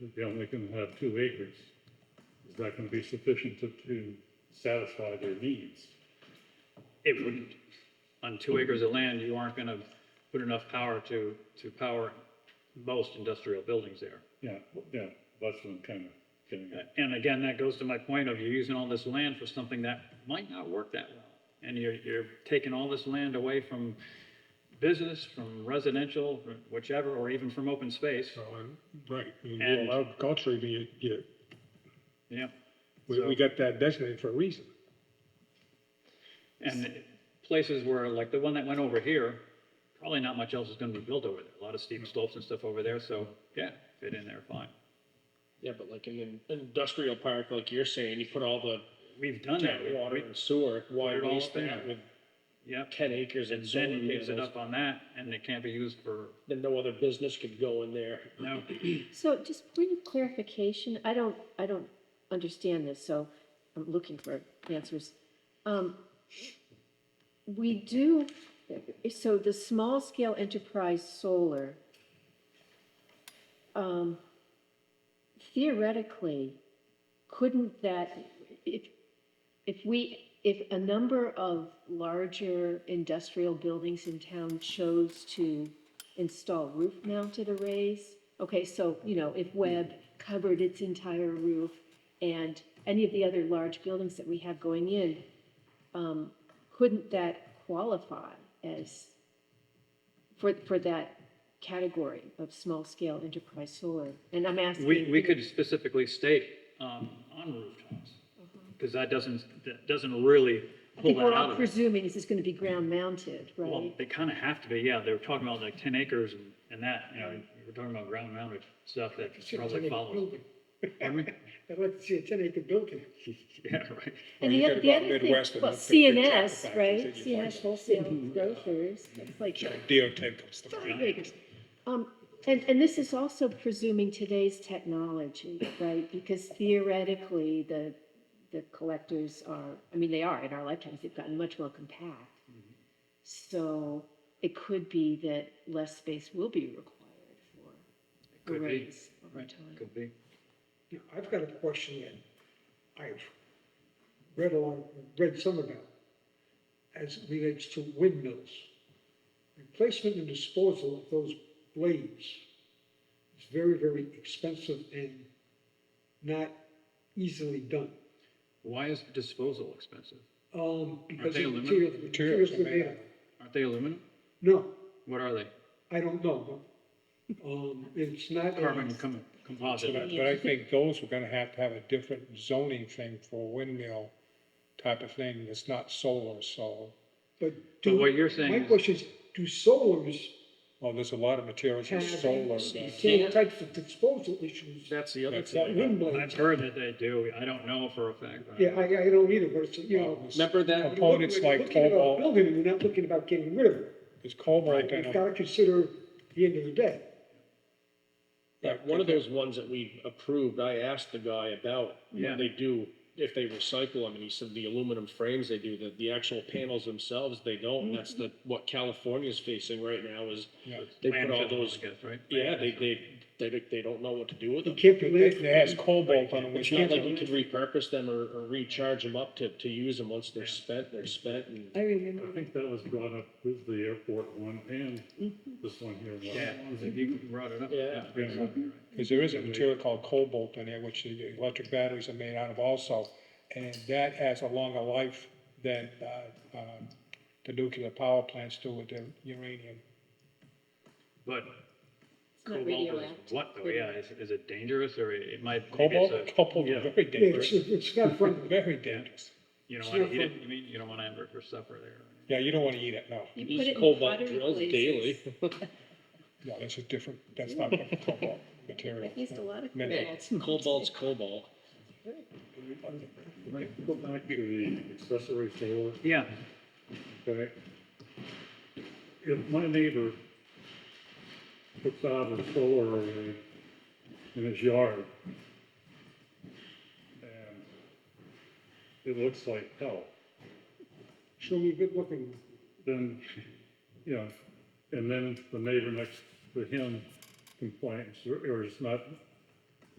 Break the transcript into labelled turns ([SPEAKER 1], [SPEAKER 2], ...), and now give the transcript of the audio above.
[SPEAKER 1] If You're only gonna have two acres. Is that gonna be sufficient to, to satisfy their needs?
[SPEAKER 2] It wouldn't. On two acres of land, you aren't gonna put enough power to, to power most industrial buildings there.
[SPEAKER 1] Yeah, yeah, that's what I'm kind of getting at.
[SPEAKER 2] And again, that goes to my point of you're using all this land for something that might not work that well. And you're, you're taking all this land away from business, from residential, whichever, or even from open space.
[SPEAKER 3] So, and, right, and we
[SPEAKER 2] And-
[SPEAKER 3] allowed culture to be, you,
[SPEAKER 2] Yeah.
[SPEAKER 3] we, we
[SPEAKER 2] So-
[SPEAKER 3] got that designated for a reason.
[SPEAKER 2] And places where, like the one that went over here, probably not much else is gonna be built over there. A lot of steep slopes and stuff over there, so, yeah, fit in there fine.
[SPEAKER 4] Yeah, but like in an industrial park, like you're saying, you put all the
[SPEAKER 2] We've done that.
[SPEAKER 4] tap
[SPEAKER 2] We-
[SPEAKER 4] water
[SPEAKER 2] we-
[SPEAKER 4] and sewer, why
[SPEAKER 2] it all
[SPEAKER 4] waste
[SPEAKER 2] up in
[SPEAKER 4] that
[SPEAKER 2] there.
[SPEAKER 4] with
[SPEAKER 2] Yep.
[SPEAKER 4] ten acres and
[SPEAKER 2] And then
[SPEAKER 4] solar
[SPEAKER 2] he gives it
[SPEAKER 4] panels?
[SPEAKER 2] up on that and it can't be used for,
[SPEAKER 4] Then no other business could go in there.
[SPEAKER 2] no,
[SPEAKER 5] So just point of clarification, I don't, I don't understand this, so I'm looking for answers. Um, We do, so the small scale enterprise solar, um, theoretically, couldn't that, if, if we, if a number of larger industrial buildings in town chose to install roof-mounted arrays, okay, so, you know,
[SPEAKER 2] Mm-hmm.
[SPEAKER 5] if Webb covered its entire roof and any of the other large buildings that we have going in, um, couldn't that qualify as, for, for that category of small-scale enterprise solar? And I'm asking.
[SPEAKER 2] we, we could specifically state, um, on rooftops.
[SPEAKER 6] Mm-hmm.
[SPEAKER 2] Cause that doesn't, that doesn't really
[SPEAKER 5] I
[SPEAKER 2] pull
[SPEAKER 5] think
[SPEAKER 2] that
[SPEAKER 5] we're all
[SPEAKER 2] out of it.
[SPEAKER 5] presuming this is gonna be ground-mounted,
[SPEAKER 2] Well,
[SPEAKER 5] right?
[SPEAKER 2] they kinda have to be, yeah, they were talking about like ten acres and, and that, you know, we're talking about ground mounted stuff that probably follows. Pardon me?
[SPEAKER 6] I'd like to see a ten acre building.
[SPEAKER 2] Yeah, right.
[SPEAKER 3] Well,
[SPEAKER 5] And the
[SPEAKER 3] you
[SPEAKER 5] other,
[SPEAKER 3] gotta
[SPEAKER 5] the
[SPEAKER 3] go out
[SPEAKER 5] other thing,
[SPEAKER 3] Midwest and
[SPEAKER 5] well,
[SPEAKER 3] look at the big tractor
[SPEAKER 5] CNS,
[SPEAKER 3] factories
[SPEAKER 5] right,
[SPEAKER 3] that you
[SPEAKER 5] CNS
[SPEAKER 3] find.
[SPEAKER 5] wholesale grocers, it's like
[SPEAKER 3] DOT comes to
[SPEAKER 5] five
[SPEAKER 3] mind.
[SPEAKER 5] acres. Um, and, and this is also presuming today's technology, right? Because theoretically, the, the collectors are, I mean, they are, in our lifetimes, they've gotten much more compact. So it could be that less space will be required for
[SPEAKER 2] Could be.
[SPEAKER 5] arrays over
[SPEAKER 2] Right,
[SPEAKER 5] time.
[SPEAKER 2] could be.
[SPEAKER 6] Now, I've got a question that I've read along, read some about as it relates to windmills. Replacement and disposal of those blades is very, very expensive and not easily done.
[SPEAKER 2] Why is disposal expensive?
[SPEAKER 6] Um, because
[SPEAKER 2] they
[SPEAKER 6] of the
[SPEAKER 2] aluminum?
[SPEAKER 6] material, the materials they're made of.
[SPEAKER 2] Aren't they aluminum?
[SPEAKER 6] No,
[SPEAKER 2] What are they?
[SPEAKER 6] I don't know, but, um, it's not. a-
[SPEAKER 2] Carbon com-
[SPEAKER 3] But I-
[SPEAKER 2] composite.
[SPEAKER 3] but I think those are gonna have to have a different zoning thing for windmill type of thing, that's not solar, so,
[SPEAKER 6] But do.
[SPEAKER 2] what you're saying
[SPEAKER 6] My
[SPEAKER 2] is-
[SPEAKER 6] question is, do solars
[SPEAKER 3] well, there's a lot of materials in
[SPEAKER 6] have
[SPEAKER 3] solar.
[SPEAKER 6] the
[SPEAKER 3] that-
[SPEAKER 6] same types of disposal issues
[SPEAKER 4] That's the other
[SPEAKER 3] That's
[SPEAKER 6] that
[SPEAKER 4] thing.
[SPEAKER 6] wind
[SPEAKER 2] I've
[SPEAKER 6] blades?
[SPEAKER 2] heard that they do. I don't know for a fact.
[SPEAKER 6] Yeah, I, I don't either, but it's, you
[SPEAKER 3] Oh,
[SPEAKER 6] know.
[SPEAKER 4] Remember that?
[SPEAKER 6] you're looking-
[SPEAKER 3] Components
[SPEAKER 6] you're
[SPEAKER 3] like
[SPEAKER 6] looking at a
[SPEAKER 3] cobalt,
[SPEAKER 6] Building, and you're not looking about getting rid of it.
[SPEAKER 3] there's cobalt in
[SPEAKER 6] You've
[SPEAKER 3] them.
[SPEAKER 6] gotta consider the end of the day.
[SPEAKER 4] Yeah, one of those ones that we approved, I asked the guy about
[SPEAKER 2] Yeah.
[SPEAKER 4] what they do, if they recycle them, and he said the aluminum frames they do, the, the actual
[SPEAKER 2] Mm.
[SPEAKER 4] panels themselves, they don't. And that's the, what California's facing right now is
[SPEAKER 3] Yeah.
[SPEAKER 4] they put all those,
[SPEAKER 2] I guess, right?
[SPEAKER 4] yeah, they, they, they, they don't know what to do with
[SPEAKER 6] You
[SPEAKER 4] them.
[SPEAKER 6] can't
[SPEAKER 3] It
[SPEAKER 6] be
[SPEAKER 3] it
[SPEAKER 6] late.
[SPEAKER 3] has cobalt on them,
[SPEAKER 4] It's
[SPEAKER 3] which is
[SPEAKER 4] not like you could repurpose them or, or recharge them up to, to use them once they're spent, they're spent and.
[SPEAKER 5] I remember.
[SPEAKER 1] I think that was brought up with the airport one and this one here.
[SPEAKER 2] Yeah, you brought it up.
[SPEAKER 4] Yeah.
[SPEAKER 3] Because there is a material called cobalt in there, which the electric batteries are made out of also, and that has a longer life than, uh, uh, the nuclear power plants do with their uranium.
[SPEAKER 2] But
[SPEAKER 5] not
[SPEAKER 2] cobalt is
[SPEAKER 5] radioactive.
[SPEAKER 2] what though? Yeah, is, is it dangerous or it might? maybe it's
[SPEAKER 3] Cobalt,
[SPEAKER 2] a-
[SPEAKER 3] cobalt
[SPEAKER 1] yeah.
[SPEAKER 3] is very
[SPEAKER 6] Yeah, It's,
[SPEAKER 3] dangerous,
[SPEAKER 6] it's not friendly.
[SPEAKER 3] very dangerous.
[SPEAKER 2] You
[SPEAKER 6] it's
[SPEAKER 2] don't want
[SPEAKER 6] not
[SPEAKER 2] to eat it.
[SPEAKER 6] fun.
[SPEAKER 2] You mean, you don't want to have it for supper there.
[SPEAKER 3] Yeah, you don't wanna eat it, no,
[SPEAKER 5] You
[SPEAKER 4] Use
[SPEAKER 5] put it in
[SPEAKER 4] cobalt
[SPEAKER 5] pottery
[SPEAKER 4] drills
[SPEAKER 5] places.
[SPEAKER 4] daily.
[SPEAKER 3] no, that's a different, that's not a cobalt material.
[SPEAKER 5] I've used a lot of
[SPEAKER 3] Min-
[SPEAKER 5] cobalts.
[SPEAKER 4] Cobalt's cobalt.
[SPEAKER 1] Go back to the accessory solar.
[SPEAKER 2] Yeah,
[SPEAKER 1] Okay. If my neighbor puts out a solar array in his yard, and it looks like hell,
[SPEAKER 6] Show me a good looking.
[SPEAKER 1] then, you know, and then the neighbor next to him complains, or or is not